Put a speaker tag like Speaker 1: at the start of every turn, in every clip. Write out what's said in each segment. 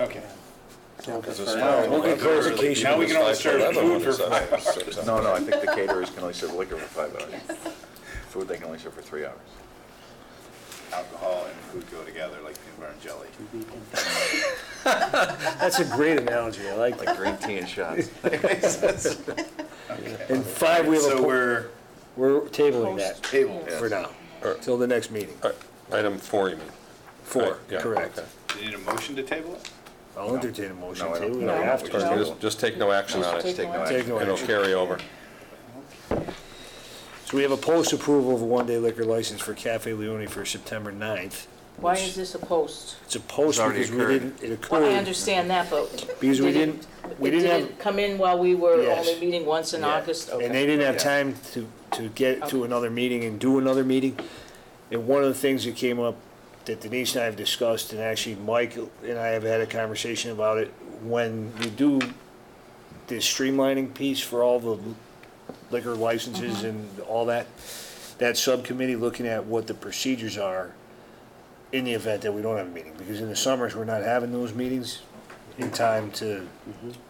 Speaker 1: Okay.
Speaker 2: Because it's
Speaker 1: For
Speaker 2: fine.
Speaker 1: now, we'll get clarification. Now we can only serve food for
Speaker 2: five.
Speaker 3: No, no, I think the caterers can only serve liquor for five hours. Food, they can only serve for three hours.
Speaker 2: Alcohol and food go together like peanut butter and jelly.
Speaker 4: That's a great analogy, I like that.
Speaker 3: Like green tea and shots.
Speaker 4: And five, we have a,
Speaker 2: So
Speaker 4: po-
Speaker 2: we're
Speaker 4: we're tabling that
Speaker 2: tabled.
Speaker 4: for now, till the next meeting.
Speaker 5: Uh, Item four, you mean?
Speaker 4: Four,
Speaker 5: Right, yeah,
Speaker 4: correct.
Speaker 5: okay.
Speaker 2: Do you need a motion to table it?
Speaker 4: I'll entertain a motion
Speaker 3: No, I
Speaker 4: too,
Speaker 3: don't-
Speaker 4: we
Speaker 3: no,
Speaker 4: don't
Speaker 3: I
Speaker 4: have
Speaker 3: don't.
Speaker 4: to.
Speaker 3: No.
Speaker 5: Just- Just take no action on
Speaker 3: Just
Speaker 5: it.
Speaker 3: take no
Speaker 4: Take
Speaker 3: action.
Speaker 4: no
Speaker 5: It'll
Speaker 4: action.
Speaker 5: carry over.
Speaker 4: So we have a post approval of a one-day liquor license for Cafe Leone for September 9th.
Speaker 6: Why is this a post?
Speaker 4: It's a post
Speaker 3: It's already
Speaker 4: because we
Speaker 3: occurred.
Speaker 4: didn't, it
Speaker 6: Well, I
Speaker 4: occurred.
Speaker 6: understand that, but.
Speaker 4: Because we
Speaker 6: did it-
Speaker 4: didn't- we
Speaker 6: it
Speaker 4: didn't have-
Speaker 6: Come in while we were
Speaker 4: Yes.
Speaker 6: only meeting once in
Speaker 4: Yeah.
Speaker 6: August,
Speaker 4: And
Speaker 6: okay.
Speaker 4: they didn't have time to, to get to
Speaker 6: Okay.
Speaker 4: another meeting and do another meeting. And one of the things that came up that Denise and I have discussed, and actually Mike and I have had a conversation about it, when we do the streamlining piece for all the liquor
Speaker 6: Mm-hmm.
Speaker 4: licenses and all that, that subcommittee looking at what the procedures are in the event that we don't have a meeting, because in the summers, we're not having those meetings in time to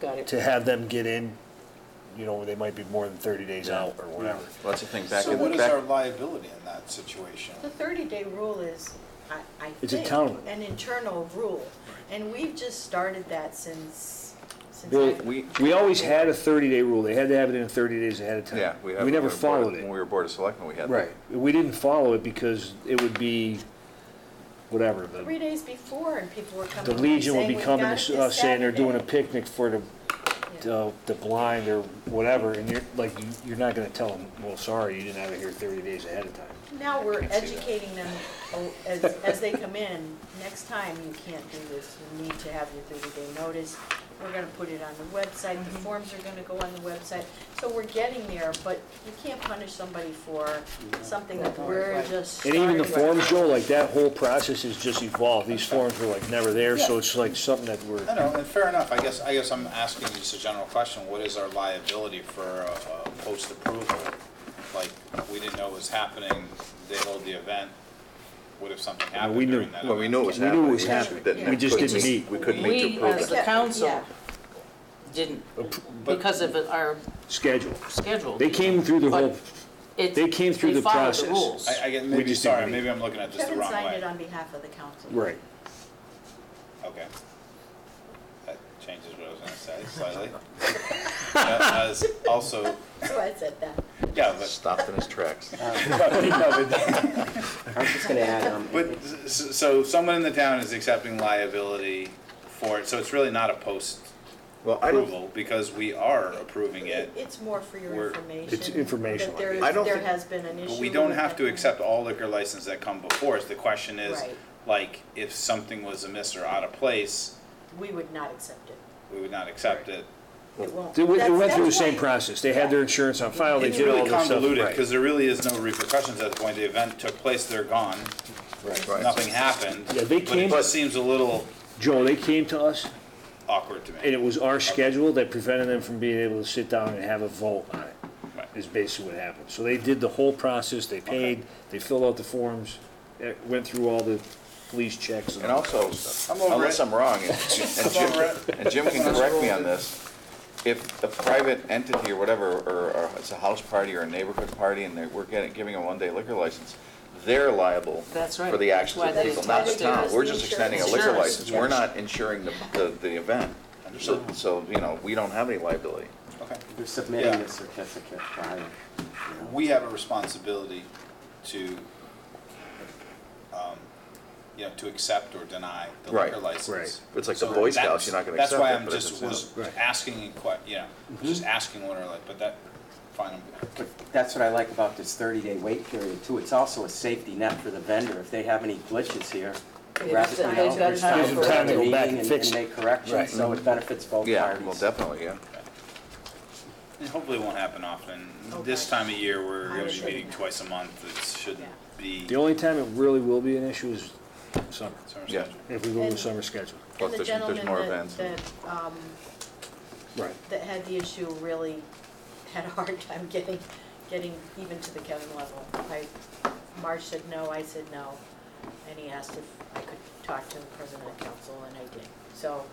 Speaker 6: Got it.
Speaker 4: to have them get in, you know, they might be more than 30 days out or whatever.
Speaker 3: Lots of things back
Speaker 2: So
Speaker 3: in,
Speaker 2: what
Speaker 3: the
Speaker 2: is our
Speaker 3: back,
Speaker 2: liability in that situation?
Speaker 7: The 30-day rule is, I, I
Speaker 4: It's a
Speaker 7: think,
Speaker 4: town rule.
Speaker 7: an internal rule. And we've just started that since, since.
Speaker 4: Well,
Speaker 7: I've-
Speaker 3: we,
Speaker 4: We always had a 30-day rule, they had to have it in 30 days ahead of time.
Speaker 3: yeah, we have.
Speaker 4: We never
Speaker 3: when were Board of-
Speaker 4: followed
Speaker 3: When we
Speaker 4: it.
Speaker 3: were Board of Selectmen, we had. that.
Speaker 4: Right, we didn't follow it because it would be, whatever, the
Speaker 7: Three days before, and people were
Speaker 4: the
Speaker 7: coming. in
Speaker 4: Legion would
Speaker 7: saying,
Speaker 4: be
Speaker 7: "We've
Speaker 4: coming
Speaker 7: got
Speaker 4: to
Speaker 7: it
Speaker 4: us
Speaker 7: this
Speaker 4: uh, saying they're doing a
Speaker 7: Saturday."
Speaker 4: picnic for the, the the blind or whatever, and you're, like, you- you're not gonna tell them, well, sorry, you didn't have it here 30 days ahead of time.
Speaker 7: Now we're
Speaker 3: Can't see that.
Speaker 7: educating them oh, as, as they come in, next time you can't do this, you need to have your 30-day notice. We're gonna put it on the website,
Speaker 3: Mm-hmm.
Speaker 7: the forms are gonna go on the website. So we're getting there, but you can't punish somebody for something that we're just.
Speaker 4: And even the
Speaker 7: starting.
Speaker 4: forms, Joe, like, that whole process has just evolved, these forms were like never there, so it's like something that we're.
Speaker 2: I know, and fair enough, I guess, I guess I'm asking just a general question, what is our liability for a, a post-approval? Like, we didn't know it was happening, they hold the event, what if something
Speaker 4: Yeah,
Speaker 2: happened
Speaker 4: we knew.
Speaker 2: during that?
Speaker 3: Well, we
Speaker 2: event?
Speaker 3: knew it was
Speaker 4: We knew it was
Speaker 3: happening. we just
Speaker 4: happening.
Speaker 3: didn't-
Speaker 4: We just didn't
Speaker 3: couldn't-
Speaker 4: meet.
Speaker 3: We couldn't meet to
Speaker 6: We,
Speaker 3: approve it.
Speaker 6: as the
Speaker 7: it.
Speaker 6: council,
Speaker 7: Yeah.
Speaker 6: didn't, because of our
Speaker 4: schedule.
Speaker 6: schedule.
Speaker 4: They came through the whole,
Speaker 6: It's-
Speaker 4: they came through
Speaker 6: they
Speaker 4: the
Speaker 6: followed
Speaker 4: process.
Speaker 6: rules.
Speaker 2: I, I guess,
Speaker 4: We
Speaker 2: maybe,
Speaker 4: just didn't
Speaker 2: sorry,
Speaker 4: meet.
Speaker 2: maybe I'm looking at this the
Speaker 7: Kevin
Speaker 2: wrong
Speaker 7: signed
Speaker 2: way.
Speaker 7: it on behalf of the council.
Speaker 4: right.
Speaker 2: Okay. That changes what I was gonna say slightly. That was also,
Speaker 7: So I said that.
Speaker 2: yeah, but,
Speaker 3: Stopped in his tracks.
Speaker 1: I was just gonna add, um,
Speaker 2: but, s- s- so someone in the town is accepting liability for it, so it's really not a
Speaker 3: Well, I don't,
Speaker 2: post-approval, because we are approving it.
Speaker 7: It's more for your
Speaker 2: We're-
Speaker 7: information.
Speaker 4: It's informational,
Speaker 7: That there is,
Speaker 3: I don't
Speaker 7: there
Speaker 3: think-
Speaker 7: has been an issue.
Speaker 2: But we don't
Speaker 7: with
Speaker 2: have to
Speaker 7: that.
Speaker 2: accept all liquor licenses that come before us. The question is,
Speaker 7: Right.
Speaker 2: like, if something was amiss or out of place,
Speaker 7: We would not accept it.
Speaker 2: we would not accept it.
Speaker 7: It won't.
Speaker 4: They went, they
Speaker 7: That's-
Speaker 4: went through the
Speaker 7: that's
Speaker 4: same
Speaker 7: why-
Speaker 4: process. They had their insurance on file, they
Speaker 2: It's
Speaker 4: did all
Speaker 2: really
Speaker 4: this stuff.
Speaker 2: convoluted,
Speaker 4: right.
Speaker 2: because there really is no repercussions at the point the event took place, they're gone,
Speaker 3: right.
Speaker 2: nothing happened.
Speaker 4: Yeah,
Speaker 2: But
Speaker 4: they
Speaker 2: it
Speaker 4: came-
Speaker 2: just seems a little
Speaker 4: Joe, they came to us,
Speaker 2: awkward to
Speaker 4: and
Speaker 2: me.
Speaker 4: it was our schedule that prevented them from being able to sit down and have a vote on it,
Speaker 2: Right.
Speaker 4: is basically what happened. So they did the whole process, they paid, they filled out the forms, eh, went through all the police checks and
Speaker 3: And
Speaker 4: all.
Speaker 3: also,
Speaker 2: I'm over
Speaker 3: unless
Speaker 2: it.
Speaker 3: I'm wrong, and and
Speaker 2: I'm over
Speaker 3: Jim,
Speaker 2: it.
Speaker 3: and Jim can correct me on this, if a private entity or whatever, or or it's a house party or a neighborhood party, and they we're getting, giving a one-day liquor license, they're liable
Speaker 6: That's right.
Speaker 3: for the actions
Speaker 6: That's
Speaker 3: of
Speaker 6: why
Speaker 3: the
Speaker 6: they
Speaker 3: people, not the
Speaker 6: touched it
Speaker 3: town.
Speaker 6: as
Speaker 3: We're
Speaker 7: the
Speaker 3: just extending a
Speaker 6: insurance.
Speaker 3: liquor
Speaker 6: Insurance,
Speaker 3: license, we're not insuring the, the, the event. So, so, you know, we don't have any liability.
Speaker 2: Okay.
Speaker 1: you're submitting
Speaker 2: Yeah.
Speaker 1: the certificate prior. you know.
Speaker 2: We have a responsibility to, um, you know, to accept or deny the
Speaker 3: Right,
Speaker 2: liquor license.
Speaker 3: It's like the
Speaker 2: So
Speaker 3: Boy Scouts,
Speaker 2: that's-
Speaker 3: you're not gonna
Speaker 2: That's
Speaker 3: accept
Speaker 2: why
Speaker 3: it,
Speaker 2: I'm
Speaker 3: but
Speaker 2: just,
Speaker 3: it's a-
Speaker 2: was
Speaker 4: Right.
Speaker 2: asking, in que- you know,
Speaker 3: Mm-hmm.
Speaker 2: just asking what are like, but that, fine, I'm
Speaker 1: But that's what I like about this 30-day wait period too. It's also a safety net for the vendor. If they have any glitches here,
Speaker 6: They've
Speaker 1: rather
Speaker 6: got-
Speaker 1: than
Speaker 6: they've got
Speaker 1: there's
Speaker 6: time
Speaker 1: time
Speaker 6: for
Speaker 1: for
Speaker 6: it.
Speaker 1: the
Speaker 4: Time to go
Speaker 1: meeting
Speaker 4: back and
Speaker 1: and
Speaker 4: fix
Speaker 1: and
Speaker 4: it.
Speaker 1: make corrections,
Speaker 4: Right.
Speaker 1: so it benefits both parties.
Speaker 3: Yeah, well, definitely, yeah.
Speaker 2: And Hopefully it won't happen often. This
Speaker 7: Okay.
Speaker 2: time of year, we're
Speaker 7: I'm
Speaker 2: gonna be
Speaker 7: sure
Speaker 2: meeting
Speaker 7: not.
Speaker 2: twice a month. It shouldn't be.
Speaker 4: The only time it really will be an issue is summer,
Speaker 2: Sorry,
Speaker 3: Yeah.
Speaker 2: sorry.
Speaker 4: if we go to the
Speaker 7: And-
Speaker 4: summer schedule.
Speaker 3: Plus,
Speaker 7: And the
Speaker 3: there's- there's
Speaker 7: gentleman
Speaker 3: more
Speaker 7: that,
Speaker 3: events.
Speaker 7: that, um,
Speaker 4: Right.
Speaker 7: that had the issue really had a hard time getting, getting even to the Kevin level. I, Marge said no, I said no, and he asked if I could talk to the president of council, and I did. So